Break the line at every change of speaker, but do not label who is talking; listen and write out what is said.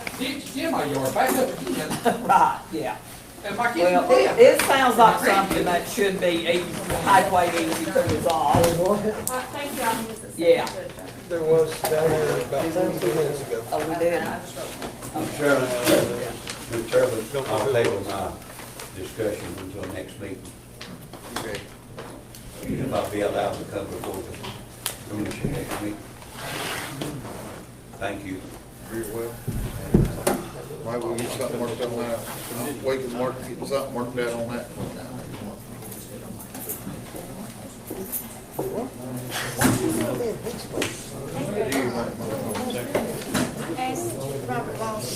Jim, Jim, my yard back up again,
Right, yeah.
and my kids
Well,
were
it,
playing.
it sounds like something that should be easy, highway easy to resolve.
Uh, thank you, I missed it.
Yeah.
There was down there about two minutes ago.
Oh, we did.
Mr. Chairman, Mr. Chairman, I'll table my discussion until next meeting. If I'll be allowed to come before the commission next meeting. Thank you.
Very well. Might we get something worked on that? We can work, get something worked out on that.
Ask Robert Walsh.